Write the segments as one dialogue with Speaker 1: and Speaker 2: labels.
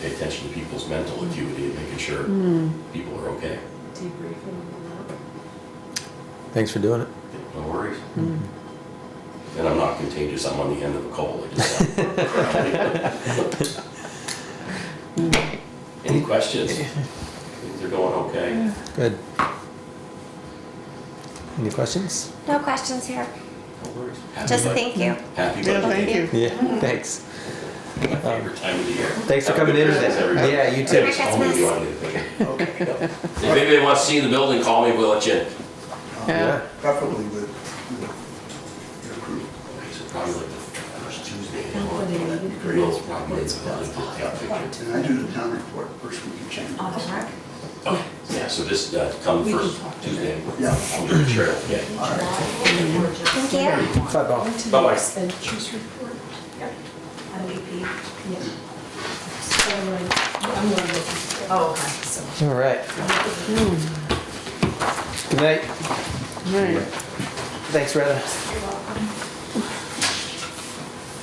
Speaker 1: pay attention to people's mental acuity and making sure people are okay.
Speaker 2: debriefing on that.
Speaker 3: Thanks for doing it.
Speaker 1: No worries. And I'm not contagious, I'm on the end of a cold. I just- Any questions? Things are going okay?
Speaker 3: Good. Any questions?
Speaker 4: No questions here.
Speaker 1: No worries. Happy
Speaker 4: Just
Speaker 1: bud-
Speaker 4: thank you.
Speaker 1: Happy
Speaker 5: Yeah,
Speaker 1: budget
Speaker 5: thank
Speaker 1: day.
Speaker 5: you.
Speaker 3: Yeah, thanks.
Speaker 1: My favorite time of the year.
Speaker 3: Thanks for
Speaker 1: Have a
Speaker 3: coming
Speaker 1: good
Speaker 3: in
Speaker 1: Christmas, everybody.
Speaker 3: today. Yeah, you
Speaker 1: Yeah,
Speaker 3: too.
Speaker 1: just call me if you want anything.
Speaker 5: Okay.
Speaker 1: If anybody wants to see the building, call me, we'll let you in.
Speaker 3: Yeah.
Speaker 5: Preferably with, with your crew.
Speaker 1: So Probably like the first Tuesday. in the month,
Speaker 2: Nobody
Speaker 1: that'd be great.
Speaker 2: knows
Speaker 1: Probably it's
Speaker 2: what it's
Speaker 1: about- yeah,
Speaker 2: about.
Speaker 1: picture.
Speaker 5: And I do the town report first week of January.
Speaker 2: On the rec?
Speaker 1: Okay, yeah, so just uh, come
Speaker 2: We can
Speaker 1: first
Speaker 2: talk to
Speaker 1: Tuesday.
Speaker 5: Yeah.
Speaker 1: I'll be sure, yeah.
Speaker 2: Thank
Speaker 4: you.
Speaker 3: Bye, Bob.
Speaker 1: Oh, Bye-bye.
Speaker 2: Expenditures report. On AP. Yeah. So, like, I'm gonna look. Oh, okay, so.
Speaker 3: All right. Good night. Thanks, Rheta.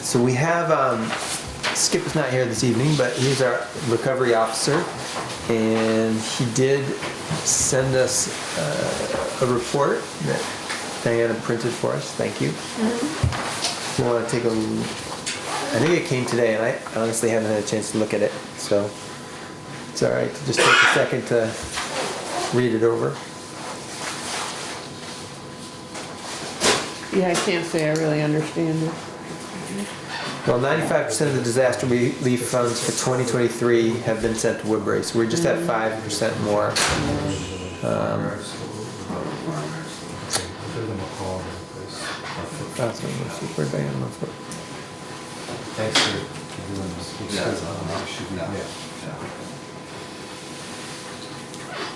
Speaker 3: So we have, um, Skip is not here this evening, but he's our recovery officer. And he did send us uh, a report that Diana printed for us. Thank you. You want to take a, l- I think it came today and I honestly haven't had a chance to look at it. So it's all right to just take a second to read it over.
Speaker 6: Yeah, I can't say I really understand it.
Speaker 3: Well, ninety-five percent of the disaster relief funds for twenty twenty-three have been sent to Woodbury, so we're just at five percent more. Um, that's what I'm looking for, Diane, that's what-
Speaker 7: Thanks for doing this. Which is, uh, should we-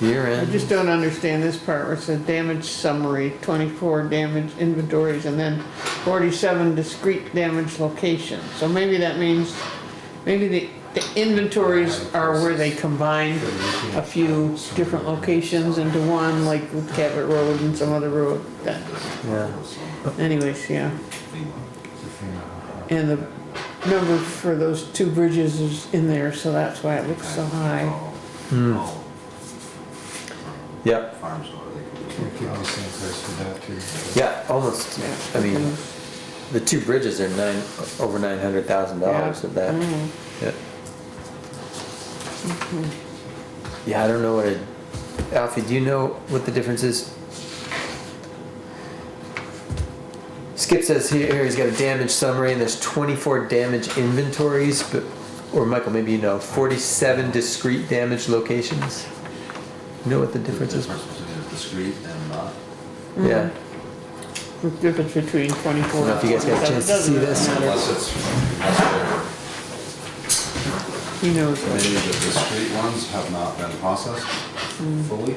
Speaker 3: Year
Speaker 6: I just
Speaker 3: end,
Speaker 6: don't understand this part where it says damage summary, twenty-four damage inventories, and then forty-seven discrete damage locations. So maybe that means, maybe the, the inventories are where they combine a few different locations into one, like with Cabot Road and some other road. That-
Speaker 3: yeah.
Speaker 6: Anyways, yeah.
Speaker 7: It's a thing, uh,
Speaker 6: And the number for those two bridges is in there, so that's why it looks so high.
Speaker 3: Hmm. Yep,
Speaker 5: Farms or they.
Speaker 7: We could be same place for that too.
Speaker 3: yeah, almost, I mean, the two bridges are nine, over nine hundred thousand dollars of that.
Speaker 6: Mhm.
Speaker 3: Yeah. Yeah, I don't know what it, Alfie, do you know what the difference is? Skip says here, here he's got a damage summary and there's twenty-four damage inventories, but, or Michael, maybe you know, forty-seven discrete damage locations. You know what the difference is?
Speaker 5: between discreet and not.
Speaker 3: Yeah,
Speaker 6: The difference between
Speaker 3: I
Speaker 6: twenty-four.
Speaker 3: don't know if you guys got a chance to see this.
Speaker 5: Unless it's, unless they're-
Speaker 6: He knows
Speaker 5: maybe
Speaker 6: that.
Speaker 5: the discreet ones have not been processed
Speaker 3: Hmm.
Speaker 5: fully.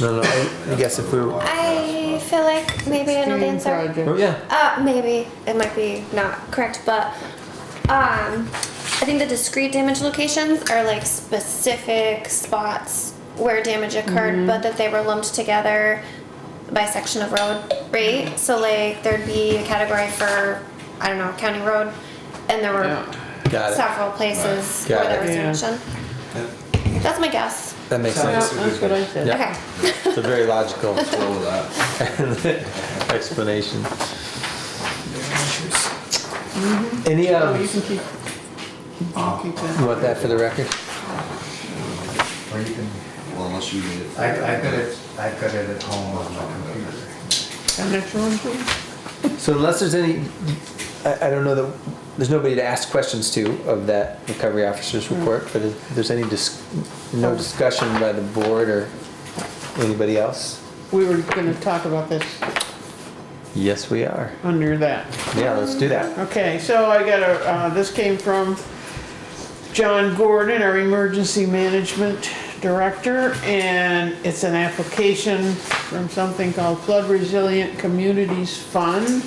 Speaker 3: No, no, I I guess if we were,
Speaker 4: I feel like maybe I know the
Speaker 6: Dream
Speaker 4: answer.
Speaker 6: project.
Speaker 3: oh, yeah.
Speaker 4: Uh, maybe it might be not correct, but um, I think the discrete damage locations are like specific spots where damage occurred,
Speaker 6: Mm-hmm.
Speaker 4: but that they were lumped together by section of road, right? So like there'd be a category for I don't know county road, and there were
Speaker 6: Yeah.
Speaker 3: Got it.
Speaker 4: several places
Speaker 3: Got
Speaker 4: where there
Speaker 3: it.
Speaker 4: was
Speaker 6: Yeah.
Speaker 4: damage. That's my guess.
Speaker 3: That makes
Speaker 6: Yeah,
Speaker 3: sense.
Speaker 6: that's what I said.
Speaker 3: Yeah.
Speaker 4: Okay.
Speaker 3: It's a very logical
Speaker 5: Go with that.
Speaker 3: explanation. Any, um,
Speaker 6: Oh, you can keep, you can keep
Speaker 3: you
Speaker 6: that.
Speaker 3: want that for the record?
Speaker 7: Or you can,
Speaker 5: Well, unless you need it.
Speaker 7: I, I got it, I got it at home on my computer.
Speaker 6: And that's your one, please?
Speaker 3: So unless there's any, I, I don't know that, there's nobody to ask questions to of that recovery officer's report, but if there's any dis, no discussion by the board or anybody else?
Speaker 6: We were gonna talk about this
Speaker 3: Yes, we are.
Speaker 6: under that.
Speaker 3: Yeah, let's do that.
Speaker 6: Okay, so I got a, uh, this came from John Gordon, our Emergency Management Director, and it's an application from something called Flood Resilient Communities Fund.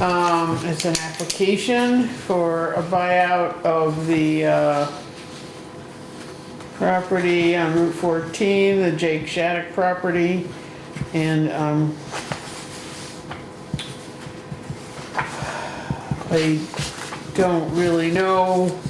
Speaker 6: Um, it's an application for a buyout of the, uh, property on Route fourteen, the Jake Shattuck property, and, um, they don't really know